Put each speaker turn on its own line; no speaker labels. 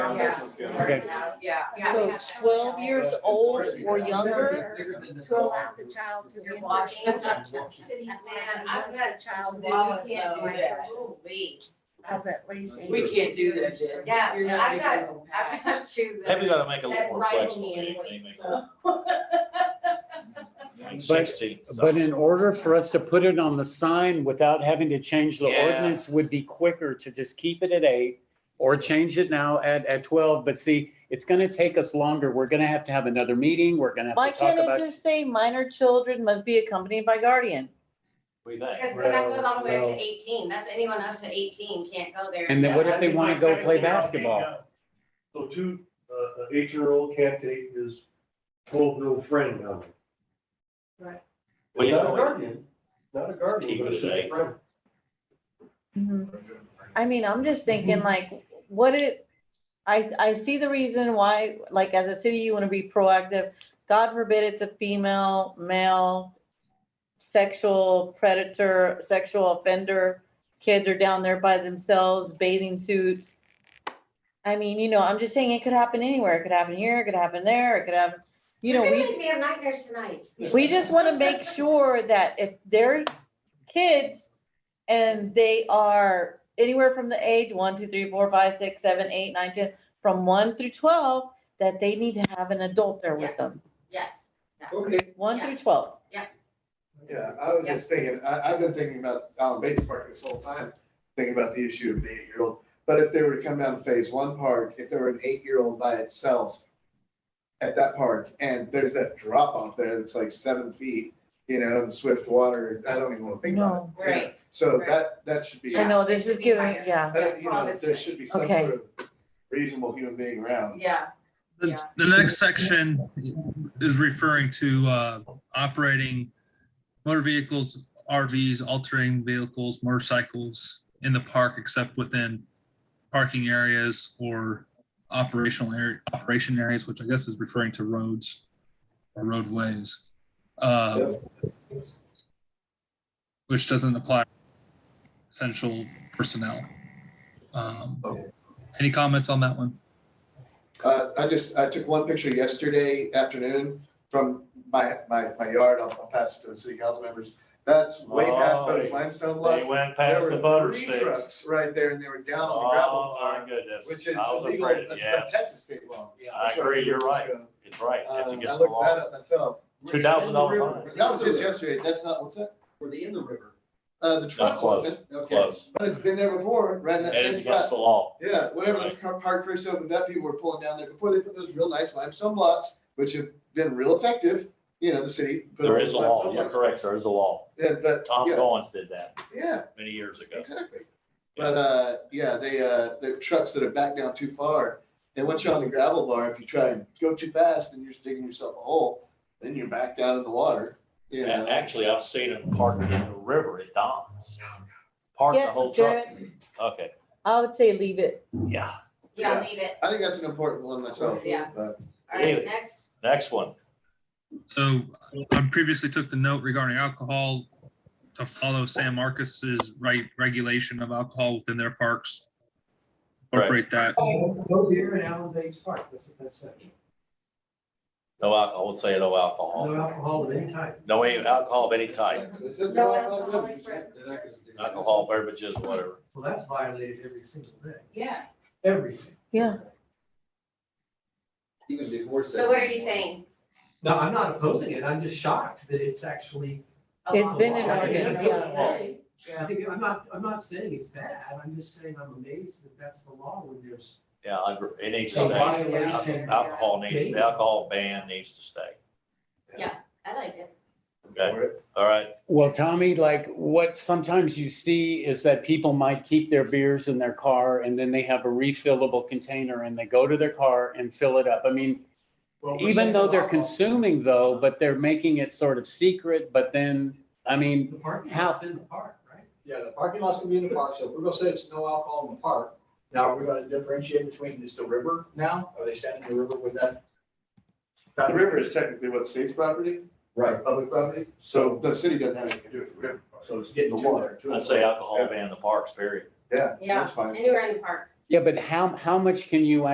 person's good.
Okay.
Yeah.
So twelve years old or younger,
Go out the child to
You're
the
watching.
international city.
Man,
and
I've got a child.
that you can't
do
break
that.
the rule Of at least.
We can't do that, Jen.
Yeah,
You're not
I've got,
even-
I've got two. that-
Maybe we gotta make it a little
that
more
rival
flexible.
me in
maybe
weight,
make
so.
it like
But-
16,
But
something.
in order for us to put it on the sign without having to change the
Yeah.
ordinance would be quicker to just keep it at eight or change it now at, at twelve. But see, it's gonna take us longer. We're gonna have to have another meeting. We're gonna
why
have to talk
can't it
about.
just say minor children must be accompanied by guardian?
We think.
Because then that goes all the way up
Well,
to eighteen. That's anyone up to eighteen can't go there.
And then what if they
Yeah.
wanna go play basketball?
So two, uh, an eight-year-old can't take his twelve-year-old friend now.
Right.
Well, you
Not a
know-
guardian, not a guardian,
Keep
but
it
it's just
at eight.
a friend.
Mm-hmm. I mean, I'm just thinking like, what it, I, I see the reason why, like, as a city, you wanna be proactive. God forbid it's a female, male, sexual predator, sexual offender. Kids are down there by themselves, bathing suits. I mean, you know, I'm just saying it could happen anywhere. It could happen here, it could happen there, it could happen, you know,
You're
we.
gonna make me have nightmares tonight.
We just want to make sure that if they're kids and they are anywhere from the age one, two, three, four, five, six, seven, eight, nine, ten, from one through twelve, that they need to have an adult there with
Yes.
them,
Yes.
Okay.
one through twelve.
Yeah, I was just thinking, I, I've been thinking about, um, Bates Park this whole time, thinking about the issue of the eight-year-old. But if they were to come down to Phase One Park, if there were an eight-year-old by itself at that park, and there's that drop off there that's like seven feet, you know, in swift water, I don't even want to think about it. Yeah.
Right.
So
right.
that, that should be,
I know,
they
this
should
is
be
giving,
higher.
yeah.
that, you know,
Honestly.
there should be some
Okay.
sort of reasonable human being around.
Yeah.
The,
Yeah.
the next section is referring to uh, operating motor vehicles, RVs, altering vehicles, motorcycles in the park except within parking areas or operational area, operation areas, which I guess is referring to roads or roadways. uh, Which doesn't apply to essential personnel. Um, Any comments on that one?
Uh, I just, I took one picture yesterday afternoon from my, my, my yard. I'll, I'll pass it to the city council members. That's way past those
Oh,
limestone
They
lots.
went
There
past the
were
butter
three
sticks.
trucks Right there and they were down on the gravel
Oh, my
pile,
goodness.
which is
I was
illegal.
afraid,
That's by
yeah.
Texas state law.
I agree, you're right. It's right.
Uh, I
It's
looked
against the
that
law.
up myself.
Two thousand dollar fine.
That was just yesterday. That's not, what's that?
Were they in the river?
Uh, the truck
close.
wasn't. Okay.
Close.
But it's been there before, right in that
It is
same
against
spot.
the law.
Yeah, whenever the car park first opened up, people were pulling down there before they put those real nice limestone blocks, which have been real effective. You know, the city. put all
There
those
is a law.
limestone
You're
blocks.
correct. There is a law.
Yeah, but,
Tom
yeah,
Goins did that
yeah,
many years ago.
exactly. But, uh, yeah, they, uh, the trucks that have backed down too far, and once you're on the gravel bar, if you try and go too fast, then you're just digging yourself a hole, then you're back down in the water, you
A-
know.
Actually, I've seen them parked in the river at Don's. Park the
Yeah,
whole truck.
Jared,
Okay,
I would say leave it.
yeah.
Yeah, leave it.
I think that's an important one myself.
Yeah.
but-
All
Leave
right,
it.
next.
Next one.
So I previously took the note regarding alcohol to follow San Marcos's right regulation of alcohol within their parks.
Right.
Incorporate that.
Go here in Allen Bates Park, that's what that said.
No alcohol, I would say no
No
alcohol.
alcohol of any type.
No alcohol of any type,
It says
No
no alcohol
alcoholic
beverages.
beverages.
alcohol, beverages, whatever.
Well, that's violated every single day,
Yeah.
everything.
Yeah.
Even before.
So what are you saying?
No, I'm not opposing it. I'm just shocked that it's actually.
It's been an
Oh,
I think
ordinance,
it's
yeah.
okay. I think- I'm not, I'm not saying it's bad. I'm just saying I'm amazed that that's the law when there's.
Yeah, I agree. it needs to
Some
stay.
violation.
Alcohol needs, the alcohol ban needs to stay.
I like it.
Okay, all right.
Well, Tommy, like what sometimes you see is that people might keep their beers in their car and then they have a refillable container and they go to their car and fill it up. I mean, Even though they're consuming though, but they're making it sort of secret, but then, I mean,
The parking
How-
lot's in the park, right?
Yeah, the parking lot's gonna be in the park, so if we're gonna say it's no alcohol in the park, now are we gonna uh, differentiate between is the river now? Are they standing in the river with that?
The river is technically what, state's property?
Right,
Public property? So the city doesn't have anything to do with the river.
so it's getting to water. to
I'd say alcohol ban the parks, period.
Yeah,
Yeah.
that's fine.
Anywhere in the park.
yeah, but how, how much can you